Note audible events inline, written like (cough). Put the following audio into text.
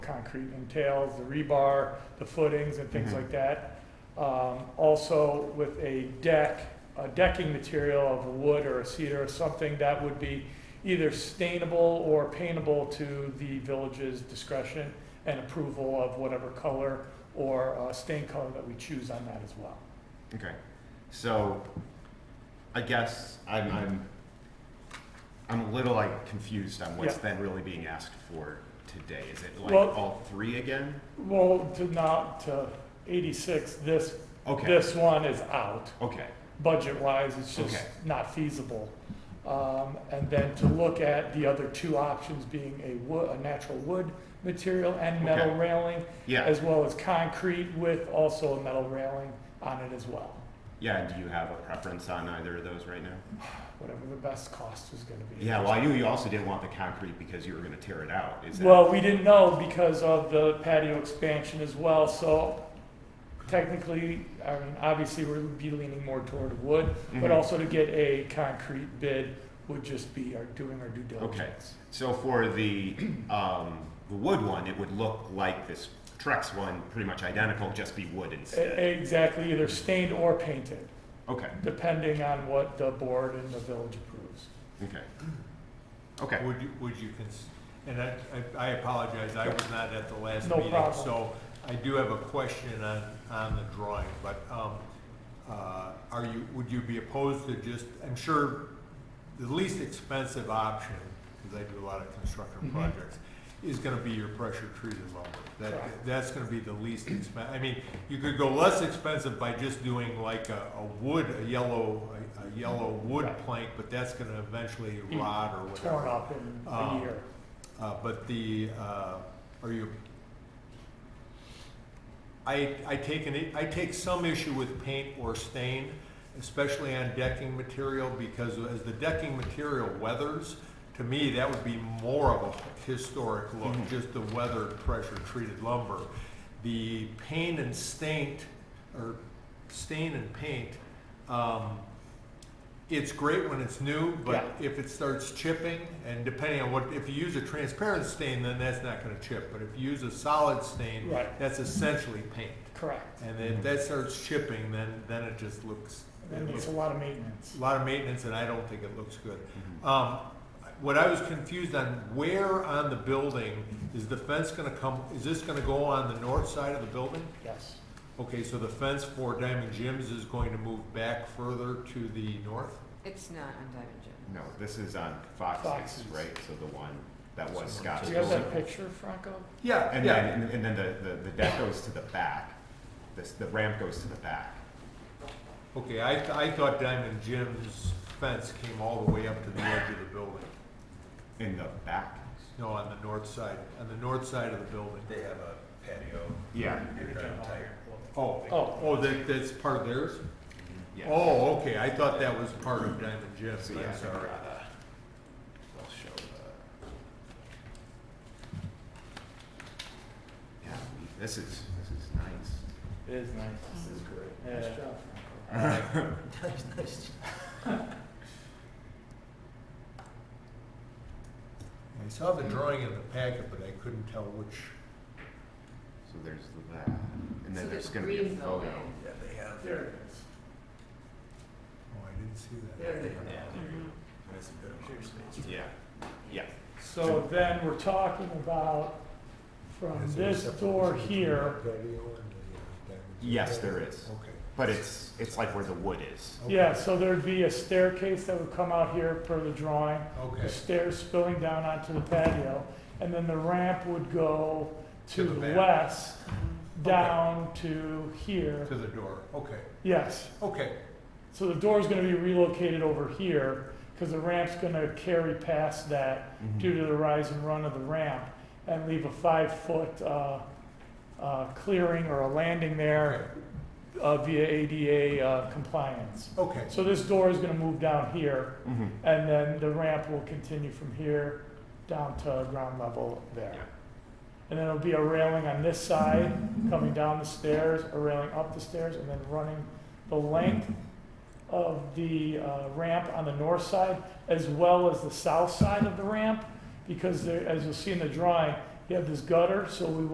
concrete entails, the rebar, the footings and things Mhm. like that. Um, also with a deck, a decking material of wood or a cedar or something that would be either stainable or paintable to the village's discretion and approval of whatever color or uh, stain color that we choose on that as well. Okay, so I guess I'm, I'm, I'm a little like confused on what's Yeah. then really being asked for today. Is it like Well- all three again? Well, to not, to eighty-six, this, Okay, this one is out. okay, budget-wise, it's just Okay. not feasible. Um, and then to look at the other two options being a wood, a natural wood material and metal Okay. railing, yeah, as well as concrete with also a metal railing on it as well, yeah. Do you have a preference on either of those right now? whatever the best cost is gonna be. Yeah, well, I knew you also didn't want the concrete because you were gonna tear it out. Is that? Well, we didn't know because of the patio expansion as well, so technically, I mean, obviously, we'd be leaning more toward wood, but Mhm. also to get a concrete bid would just be our, doing our due diligence. So for the, (clears throat) um, the wood one, it would look like this Trex one, pretty much identical, just be wood E- instead. Exactly, either stained or painted, Okay, depending on what the board and the village approves. okay. Okay. Would you, would you, cons- and I, I- I apologize, I was not at the last No meeting. problem. So I do have a question on, on the drawing, but, um, uh, are you, would you be opposed to just, I'm sure the least expensive option, because I do a lot of construction Mhm. projects, is gonna be your pressure treated lumber. Correct. That, that's gonna be the least expen, I mean, you could go less expensive by just doing like a, a wood, a yellow, a- a yellow wood Right. Mm-hmm. plank, but that's gonna eventually Be rot or whatever. Torn up in a Um, year. Uh, but the, uh, are you, I, I take an, I take some issue with paint or stain, especially on decking material, because as the decking material weathers, to me, that would be more of a historic look, Mhm. just the weathered pressure-treated lumber. The paint and stain, or stain and paint, um, it's great when it's new, but if it starts chipping, and depending on what, if you use a transparent stain, then that's not gonna chip, but if you use a solid stain, Right. that's essentially paint. Correct. And if that starts chipping, then, then it just looks, And it it's looks, a lot of maintenance. a lot of maintenance, and I don't think it looks good. Um, what I was confused on, where on the building is the fence gonna come, is this gonna go on the north side of the building? Yes, Okay, so the fence for Diamond Jim's is going to move back further to the north? It's not on Diamond Gym. No, this is on Fox's, Fox's. right? So the one that was So Scott's do you have building. that picture, Franco? Yeah, And then, and then the, the, the deck goes to the back. This, the ramp goes to the back. Okay, I, th- I thought Diamond Jim's fence came all the way up to the edge of the building. In the back? No, on the north side, on the north side of the building. They have a patio. Yeah. Oh, Oh. oh, oh, that, that's part of theirs? Yeah. Oh, okay, I thought that was part of Diamond Jim's, So, yeah, I'm I think, sorry. uh, I'll show the. Yeah, this is, this is nice. It is nice. This is great. Yeah. Nice job, (laughs) Franco. Nice, nice job. I saw the drawing in the packet, but I couldn't tell which. So there's that, and So then there's there's gonna be a green photo. building. Yeah, they have. There There it is. Oh, I didn't see that. they have. Mm-hmm. Mhm. Nice and good. Yeah, yeah. So then we're talking about from Is there a this separate door between here, the patio and the, uh, Diamond Jim's? Yes, there is, Okay. but it's, it's like where the wood is. okay, yeah, so there'd be a staircase that would come out here per the drawing. the Okay, stairs spilling down onto the patio, and then the ramp would go to To the the back. west, Okay. down to here. to the door, okay, Yes, okay. so the door's gonna be relocated over here, because the ramp's gonna carry past that Hmm. due to the rise and run of the ramp, and leave a five-foot, uh, uh, clearing or a landing there, uh, via ADA, uh, compliance. Okay, So this door is gonna move down here, Mm-hmm. And then the ramp will continue from here down to ground level Yeah. there. And then it'll be a railing on this side, coming down the stairs, a railing up the stairs, and then running the length of the uh, ramp on the north side, as well as the south side of the ramp, because there, as you'll see in the drawing, You have this gutter, so we